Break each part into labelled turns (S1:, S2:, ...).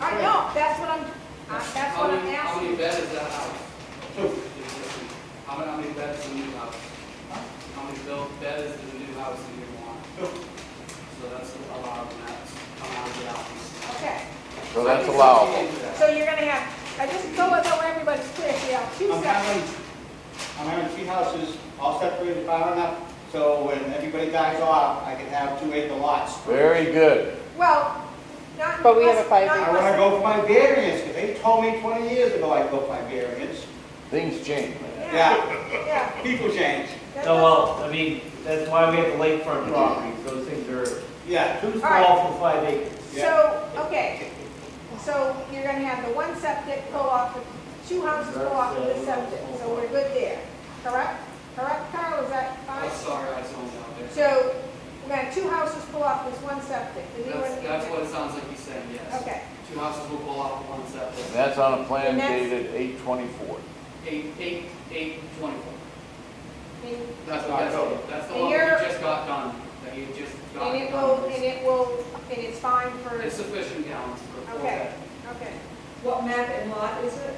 S1: I know, that's what I'm, I- that's
S2: How
S1: what I'm
S2: many- How many
S1: asking.
S2: beds is that house? How many, how many beds is the new house? How many built beds is the new house in year one? So that's allowed, and that's allowed the house. Oh,
S1: Okay,
S3: So that's allowable.
S1: so you're gonna have, I just, so that way everybody's clear, so you have two
S4: I'm
S1: separate.
S4: having, I'm having three houses, all separated far enough, so when everybody dies off, I can have two acre lots.
S3: Very good.
S1: Well, not.
S5: But we have a
S1: unless-
S5: five
S1: not
S5: acre.
S4: I wanna
S1: unless-
S4: go for my variance, because they told me twenty years ago I'd go for my variance.
S3: Things change, man.
S4: Yeah, Oh,
S1: Yeah.
S4: people change,
S1: that's-
S6: No, well, I mean, that's why we have the lakefront properties, those things are
S4: yeah.
S6: too
S1: right.
S6: small for five acres.
S1: So, okay, so you're gonna have the one septic go off, the two houses go off of the septic, so we're good there, correct? Correct, Carl, is that
S2: I'm
S1: fine?
S2: sorry, I zoned out there.
S1: So, we're gonna have two houses pull off this one septic, does anyone?
S2: That's, that's what it sounds like he's saying, yes.
S1: Okay,
S2: Two houses will pull off one
S3: And
S2: septic,
S3: that's on a plan
S1: And that's-
S3: dated eight twenty-four.
S2: eight, eight, eight, twenty-four.
S1: and,
S2: That's what, that's, that's the
S1: And
S2: one we
S1: you're-
S2: just got done, that you just got
S1: and it will, and
S2: done.
S1: it will, and it's fine for,
S2: It's sufficient gallons for four
S1: Okay.
S2: beds.
S1: okay.
S7: What map and lot is it?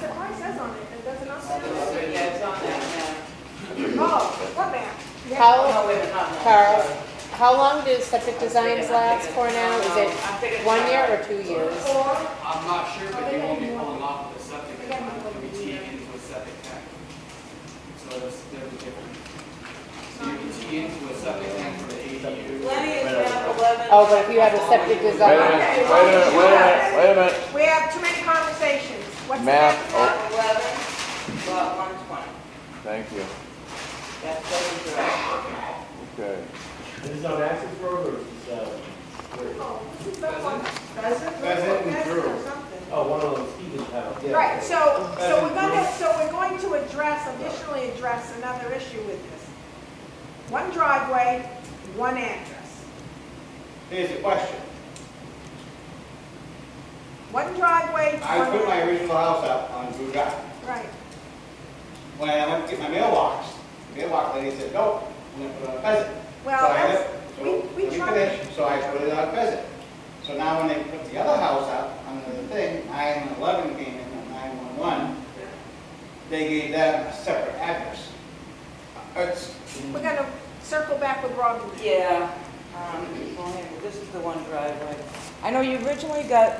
S1: So mine says on it, it doesn't all say on
S2: Doesn't
S1: it?
S2: say
S7: Yeah, it's on that
S1: Oh, what map?
S7: map.
S5: How,
S7: Oh, wait, it's not that.
S5: Carl, how long do septic designs last for now? Is it
S7: I'm thinking-
S5: one year or two years?
S1: Or,
S2: I'm not sure,
S1: Oh,
S2: but
S1: they
S2: they
S1: got
S2: won't be
S1: more.
S2: pulling off of the septic,
S1: They
S2: it's
S1: got
S2: not
S1: more
S2: gonna be
S1: than
S2: teed
S1: that.
S2: into a septic tank. So that's, there's a difference. So you can tee into a septic tank for the ADU.
S7: Lenny is map eleven.
S5: Oh, but if you have a septic
S3: Wait a
S5: design,
S3: minute, wait a minute, wait a minute, wait a minute.
S1: we have too many conversations, what's the
S3: Map,
S1: map?
S3: oh.
S7: Map eleven, lot one twenty,
S3: Thank you.
S7: that's Pleasant Drive.
S3: Okay.
S6: This is on access road or is this, uh, where-
S1: Oh, this is the one.
S4: Pheasant and Drew.
S6: oh, one of those Stevens house, yeah.
S1: Right, so, so we're
S4: Pheasant
S1: gonna, so we're going to address, additionally address another issue with this. One driveway, one address.
S4: Here's the question,
S1: One driveway,
S4: I put my
S1: one,
S4: original house up on Drew Drive.
S1: right,
S4: When I went to get my mailbox, the mailbox lady said, nope, I'm gonna put it on Pheasant.
S1: well,
S4: So I
S1: that's,
S4: have- so
S1: we- we
S4: let me
S1: tried-
S4: finish. So I put it on Pheasant. So now when they put the other house up under the thing, nine eleven came in, and nine one one, they gave that a separate address. Uh, It's,
S1: we're gonna circle back with Robin.
S7: Yeah, um, well, here, this is the one driveway. I know you originally got,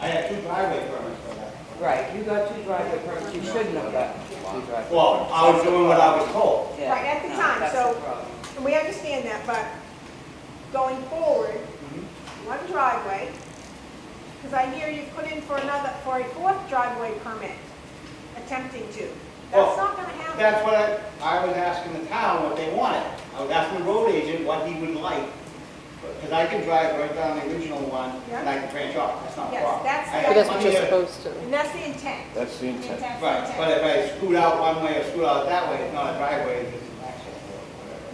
S4: I had two driveway permits for that.
S7: right, you got two driveway permits, you shouldn't have gotten two driveway.
S4: Well, I was doing what I was told.
S7: Yeah,
S1: Right, at the
S7: no,
S1: time,
S7: that's
S1: so-
S7: the problem.
S1: And we understand that, but going forward, one driveway, because I hear you put in for another, for a fourth driveway permit, attempting to. That's
S4: Well,
S1: not gonna happen.
S4: That's what I, I was asking the town what they wanted. I was asking the road agent what he would like. Because I can drive right down the original one and I can branch off, that's not a
S1: Yes,
S4: problem.
S1: that's-
S4: I have
S5: But that's what
S4: plenty
S5: you're
S4: of-
S5: supposed to.
S1: And that's the intent.
S3: That's the intent.
S1: That's the
S4: Right,
S1: intent.
S4: but if I scoot out one way or scoot out that way, it's not a driveway, it's just an access road,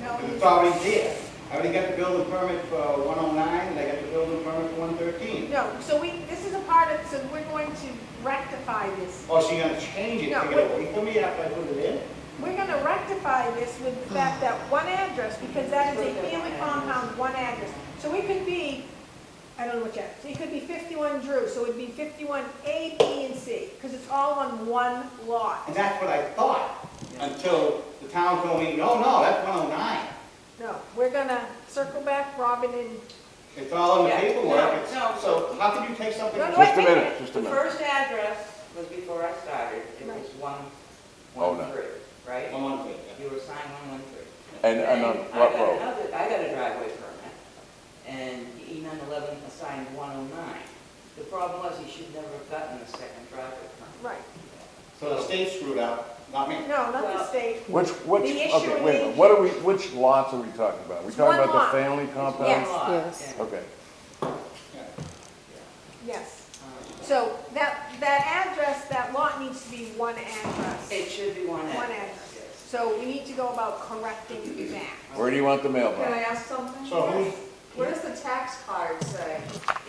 S1: No,
S4: whatever. 'Cause
S1: you-
S4: It's already there. I already got the building permit for one oh nine, and I got the building permit for one thirteen.
S1: No, so we, this is a part of, so we're going to rectify this.
S4: Oh, so you're gonna change it,
S1: No,
S4: take it away from me after I put it in?
S1: We're gonna rectify this with the fact that one address, because that is a family compound, one address. So it could be, I don't know what yet, it could be fifty-one Drew, so it'd be fifty-one A, B, and C, because it's all on one lot.
S4: And that's what I thought, until the town told me, no, no, that's one oh nine.
S1: No, we're gonna circle back, Robin and,
S4: It's all in the
S7: Yeah,
S4: paperwork, it's-
S7: no, no.
S4: so how could you take something?
S1: No, no,
S3: Just a
S1: wait, wait,
S3: minute, just a
S7: The
S3: minute.
S7: first address was before I started, it was one,
S3: Oh,
S7: one
S3: no.
S7: three, right?
S4: One one three,
S7: You were assigned one one three.
S3: And, and on
S7: Then I
S3: what
S7: got
S3: road?
S7: another- I got a driveway permit, and E nine eleven assigned one oh nine. The problem was, he should never have gotten a second driveway permit.
S1: right,
S4: so the state screwed up, not me.
S1: no, not the
S7: Well-
S1: state.
S3: Which, which,
S1: The issue
S3: okay, wait a minute.
S1: is-
S3: What are we, which lots are we talking about? we
S1: It's
S3: talking
S1: one
S3: about
S1: lot.
S3: the family
S7: It's
S3: compound?
S7: one
S5: Yes,
S7: lot,
S5: yes.
S7: and,
S3: Okay.
S4: Yeah.
S1: Yes,
S7: um,
S1: so that, that address, that lot needs to be one address.
S7: It should be one
S1: One
S7: address.
S1: address.
S7: yes.
S1: So we need to go about correcting that.
S3: Where do you want the
S8: Can I
S3: mailbox?
S8: ask something?
S4: So who's,
S8: What does the tax card say?
S1: Oh,